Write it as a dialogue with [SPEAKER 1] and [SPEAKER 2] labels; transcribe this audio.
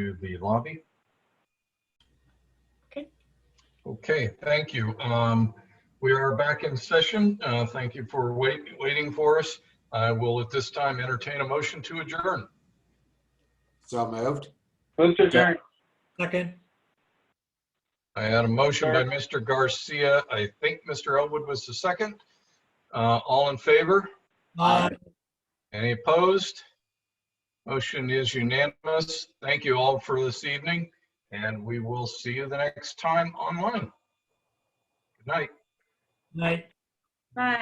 [SPEAKER 1] to the lobby.
[SPEAKER 2] Okay.
[SPEAKER 1] Okay, thank you. Um, We are back in session. Uh, Thank you for wait waiting for us. I will at this time entertain a motion to adjourn.
[SPEAKER 3] So moved.
[SPEAKER 4] Move to adjourn.
[SPEAKER 5] Second,
[SPEAKER 1] I had a motion by Mr. Garcia. I think Mr. Elwood was the second. Uh, All in favor?
[SPEAKER 5] aye.
[SPEAKER 1] Any opposed? Motion is unanimous. Thank you all for this evening, and we will see you the next time online. Good night.
[SPEAKER 5] Night.
[SPEAKER 2] Bye.